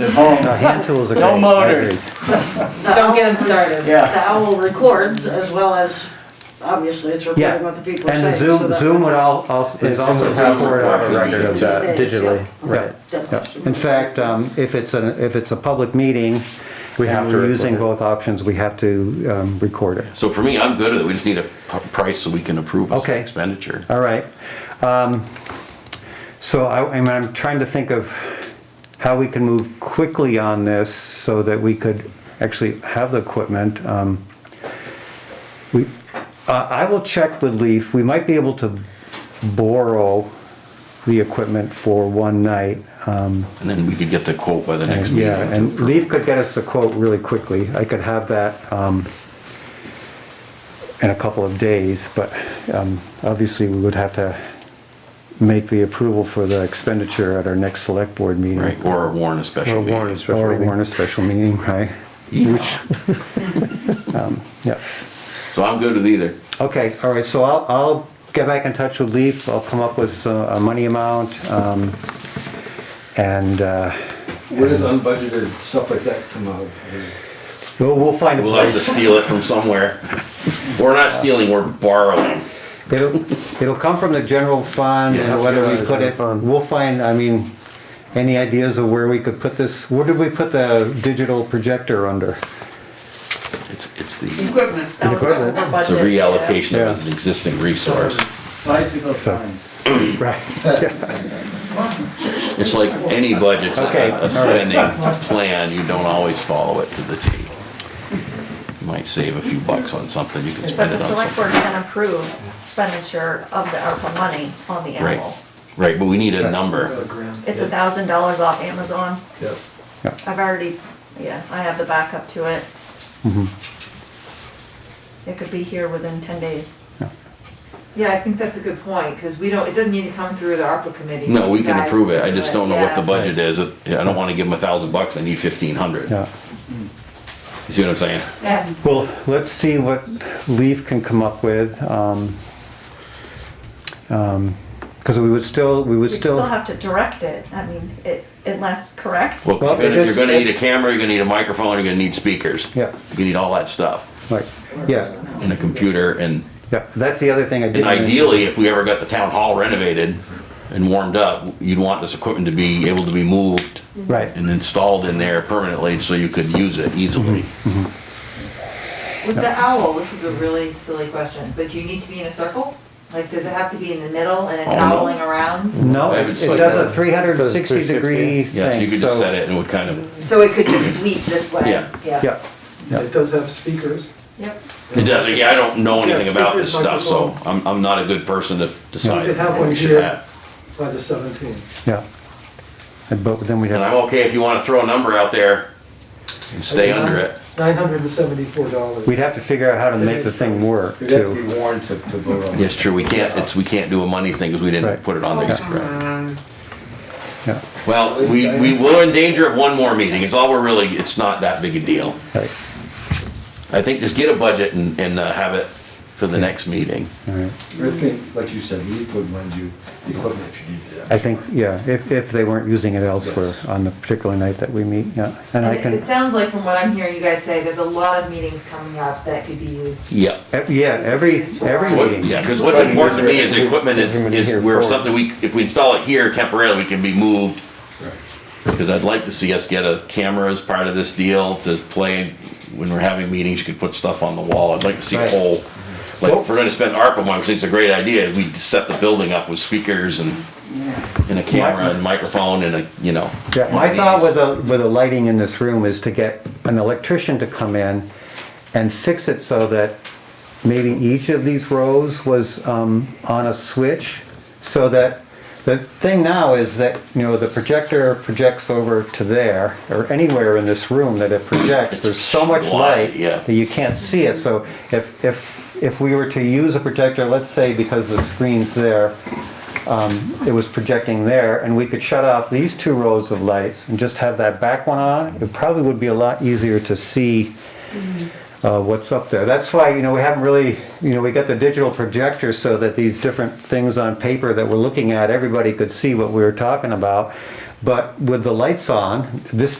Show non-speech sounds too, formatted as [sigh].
at home. No, hand tools are No great. motors. Don't get them started. Yeah. The owl records as well as, obviously, it's Yeah, recording what the people are and saying. the so Zoom, that- Zoom would al- also, is It's also in the Zoom recorded on a recording. record of uh, Yeah. that. Digitally, Right. Yeah. Definitely. In fact, um, if it's an, if it's a public meeting, We have and to we're record using it. both options, we have to um, record it. So for me, I'm good at it. We just need a p- price so we can approve as an Okay. expenditure. All right. Um, So I, I'm- I'm trying to think of how we can move quickly on this so that we could actually have the equipment. Um, We, uh, I I will check with Leaf. We might be able to borrow the equipment for one night. Um, And then we could get the quote by the next meeting. Yeah, to and approve. Leaf could get us the quote really quickly. I could have that um, in a couple of days, but um, obviously we would have to make the approval for the expenditure at our next select board meeting. Right, or warn a special Or meeting. warn a special Or meeting. warn a special meeting, right? Which, um, yeah. So I'm good with either. Okay, all right, so I'll, I'll get back in touch with Leaf, I'll come up with uh, a money amount, um, and, uh, Where does unbudgeted stuff like that come out of? Is- we'll, we'll find a We'll have to place. steal it from somewhere. We're not stealing, we're borrowing. It'll, it'll come from the general fund, and Yeah. whether we put General it, fund. we'll find, I mean, any ideas of where we could put this, where did we put the digital projector under? It's, it's the, Equipment. That was Equipment. over it's a budget, yeah. reallocation Yeah. of an existing resource. Bicycle signs. Right. It's like any budget's a- Okay, all a right. spending plan, you don't always follow it to the T. You might save a few bucks on something, you can But spend the it on select something. board can approve expenditure of the ARPA money on the Right, animal. right, but we need a number. It's a thousand dollars off Amazon. Yeah. I've already, yeah, I have the backup to it. It could be here within ten days. Yeah, I think that's a good point, because we don't, it doesn't need to come through the ARPA committee. No, we You can guys approve it, I do just don't know what the yeah. budget is, I don't wanna give them a thousand bucks, I need fifteen hundred. Yeah. You see what I'm saying? Yeah. Well, let's see what Leaf can come up with. Because we would still, we would We'd still still, have to direct it, I mean, it, unless, correct? Well, Well, you're if gonna, you're it's- gonna need a camera, you're gonna need a microphone, you're gonna need speakers. Yeah. You need all that stuff, right, yeah, and a computer, and, yeah, that's the other thing I did. and ideally, if we ever got the town hall renovated and warmed up, you'd want this equipment to be able to be moved Right, and installed in there permanently, so you could use it easily. Mm-hmm. With the owl, this is a really silly question, but do you need to be in a circle? Like, does it have to be in the middle and it's Oh, no. owling around? no, Maybe it it's it like does a- a 360 degree Yeah, so thing, you could just set so. it and it would kind of, So it could just sweep this way? Yeah. Yeah, It does have speakers. Yep, it does, yeah, I don't know anything Yeah, about this stuff, speakers, so I'm, I'm not a good person to decide. You could have what one we should here. have. By the seventeenth. yeah. And But then we'd And have, I'm okay if you wanna throw a number out there and stay under it. Nine hundred and seventy-four dollars. we'd have to figure out how to make the thing work You'd have to too. be warned to, to vote on Yes, it. true, we can't, it's, we can't do a money thing because we didn't Right. put it on there. Yeah, Well, we, we were in danger of one more meeting, it's all we're really, it's not that big a deal. right, I think just get a budget and, and uh, have it for the next meeting. all right. Your thing, like you said, Leaf would lend you the equipment if you needed it. I think, yeah, if, if they weren't using it elsewhere Yes. on the particular night that we meet, yeah. And I And it- can, it sounds like from what I'm hearing you guys say, there's a lot of meetings coming up that could be used. Yeah. ev- yeah, every, every What- meeting. Yeah, because what's important to me is the equipment is, is where something we, if we install it here temporarily, we can be moved. Because I'd like to see us get a camera as part of this deal to play, when we're having meetings, you could put stuff on the wall, I'd like to see a Right. whole. Like, if we're gonna spend ARPA money, which I think's a great idea, we set the building up with speakers and, and a camera and microphone and a, you know. Yeah, one my of thought these. with the, with the lighting in this room is to get an electrician to come in and fix it so that maybe each of these rows was um, on a switch, so that, the thing now is that, you know, the projector projects over to there, or anywhere in this room that it [coughs] projects, there's so much Glossy, light yeah. that you can't see it, so if, if, if we were to use a projector, let's say because the screen's there, um, it was projecting there, and we could shut off these two rows of lights and just have that back one on, it probably would be a lot easier to see uh, what's up there. That's why, you know, we haven't really, you know, we got the digital projector so that these different things on paper that we're looking at, everybody could see what we were talking about. But with the lights on, this